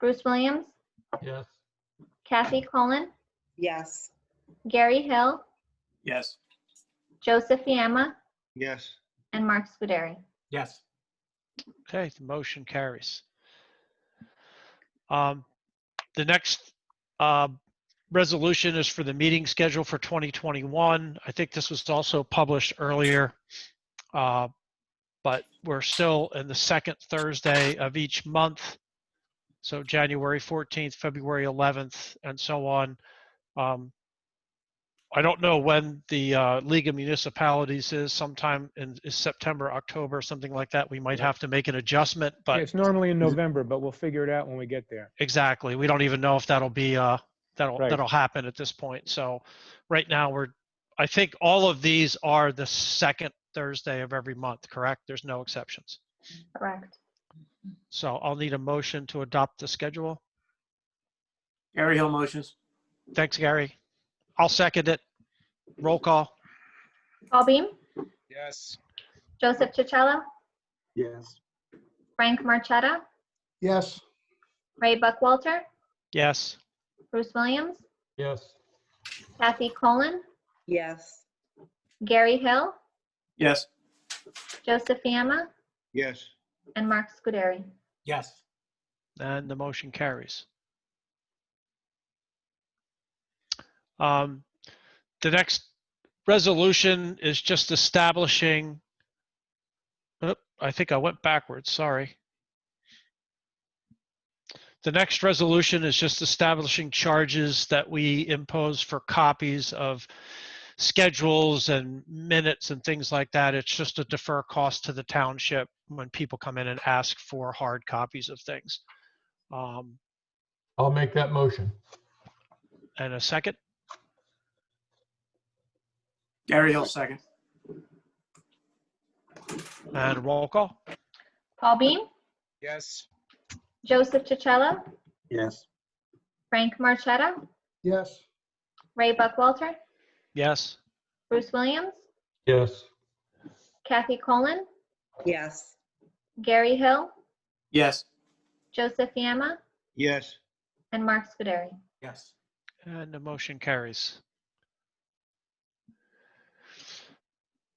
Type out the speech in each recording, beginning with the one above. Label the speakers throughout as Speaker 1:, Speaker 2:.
Speaker 1: Bruce Williams,
Speaker 2: Yes.
Speaker 1: Kathy Cullen,
Speaker 3: Yes.
Speaker 1: Gary Hill,
Speaker 4: Yes.
Speaker 1: Joseph Fiamma,
Speaker 5: yes,
Speaker 1: and Mark Scuderi.
Speaker 4: Yes.
Speaker 6: Okay, the motion carries. Um, The next uh, resolution is for the meeting schedule for 2021. I think this was also published earlier. uh, But we're still in the second Thursday of each month. So January 14th, February 11th, and so on. Um, I don't know when the uh, League of Municipalities is, sometime in is September, October, something like that. We might have to make an adjustment,
Speaker 7: Yeah,
Speaker 6: but
Speaker 7: It's normally in November, but we'll figure it out when we get there.
Speaker 6: Exactly. We don't even know if that'll be, uh, that'll,
Speaker 7: Right.
Speaker 6: that'll happen at this point. So right now we're, I think all of these are the second Thursday of every month, correct? There's no exceptions.
Speaker 1: Correct.
Speaker 6: So I'll need a motion to adopt the schedule.
Speaker 4: Gary Hill motions.
Speaker 6: Thanks, Gary. I'll second it. Roll call.
Speaker 1: Paul Beam,
Speaker 7: Yes.
Speaker 1: Joseph Chicello,
Speaker 2: Yes.
Speaker 1: Frank Marchetta,
Speaker 2: Yes.
Speaker 1: Ray Buckwalter,
Speaker 6: Yes.
Speaker 1: Bruce Williams,
Speaker 2: Yes.
Speaker 1: Kathy Cullen,
Speaker 3: Yes.
Speaker 1: Gary Hill,
Speaker 4: Yes.
Speaker 1: Joseph Fiamma,
Speaker 5: yes,
Speaker 1: and Mark Scuderi.
Speaker 4: Yes.
Speaker 6: And the motion carries. Um, The next resolution is just establishing, oop, I think I went backwards, sorry. The next resolution is just establishing charges that we impose for copies of schedules and minutes and things like that. It's just a defer cost to the township when people come in and ask for hard copies of things. Um,
Speaker 2: I'll make that motion.
Speaker 6: and a second,
Speaker 4: Gary Hill second.
Speaker 6: and roll call.
Speaker 1: Paul Beam,
Speaker 7: Yes.
Speaker 1: Joseph Chicello,
Speaker 4: Yes.
Speaker 1: Frank Marchetta,
Speaker 2: Yes.
Speaker 1: Ray Buckwalter,
Speaker 6: Yes.
Speaker 1: Bruce Williams,
Speaker 2: Yes.
Speaker 1: Kathy Cullen,
Speaker 3: Yes.
Speaker 1: Gary Hill,
Speaker 4: Yes.
Speaker 1: Joseph Fiamma,
Speaker 5: yes,
Speaker 1: and Mark Scuderi.
Speaker 4: Yes.
Speaker 6: And the motion carries.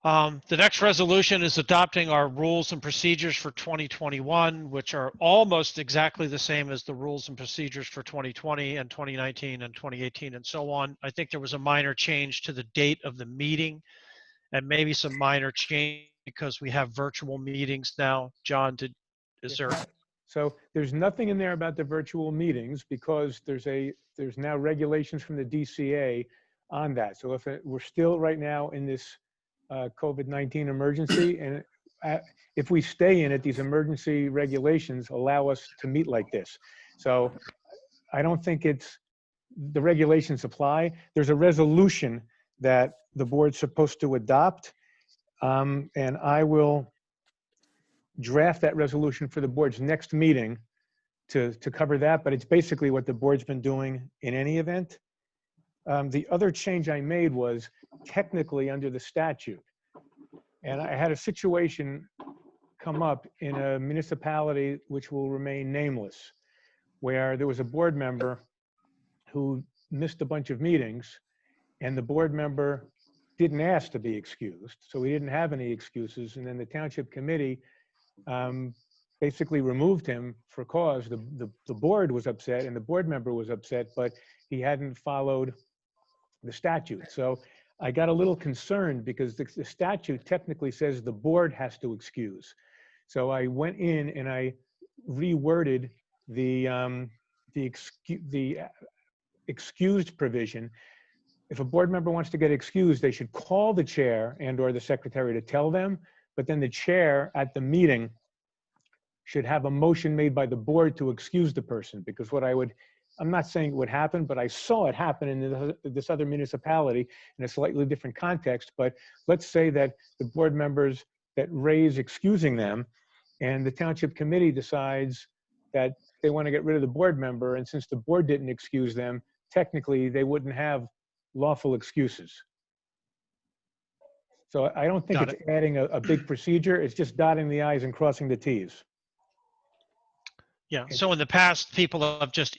Speaker 6: Um, The next resolution is adopting our rules and procedures for 2021, which are almost exactly the same as the rules and procedures for 2020 and 2019 and 2018 and so on. I think there was a minor change to the date of the meeting and maybe some minor change because we have virtual meetings now. John, did, is there,
Speaker 7: So there's nothing in there about the virtual meetings because there's a, there's now regulations from the DCA on that. So if it- we're still right now in this uh, COVID-19 emergency and uh, if we stay in it, these emergency regulations allow us to meet like this. So I don't think it's, the regulations apply. There's a resolution that the board's supposed to adopt. um, And I will draft that resolution for the board's next meeting to, to cover that, but it's basically what the board's been doing in any event. Um, The other change I made was technically under the statute. And I had a situation come up in a municipality which will remain nameless, where there was a board member who missed a bunch of meetings, and the board member didn't ask to be excused, so we didn't have any excuses. And then the township committee um, basically removed him for cause. The, the, the board was upset and the board member was upset, but he hadn't followed the statute. So I got a little concerned because the, the statute technically says the board has to excuse. So I went in and I reworded the, um, the excuse, the uh, excused provision. If a board member wants to get excused, they should call the chair and or the secretary to tell them but then the chair at the meeting should have a motion made by the board to excuse the person, because what I would, I'm not saying it would happen, but I saw it happen in the- this other municipality in a slightly different context, but let's say that the board members that raise excusing them, and the township committee decides that they want to get rid of the board member, and since the board didn't excuse them, technically, they wouldn't have lawful excuses. So I I don't think
Speaker 6: Got
Speaker 7: it's adding a, a big procedure. It's just dotting the i's and crossing the t's.
Speaker 6: Yeah, so in the past, people have just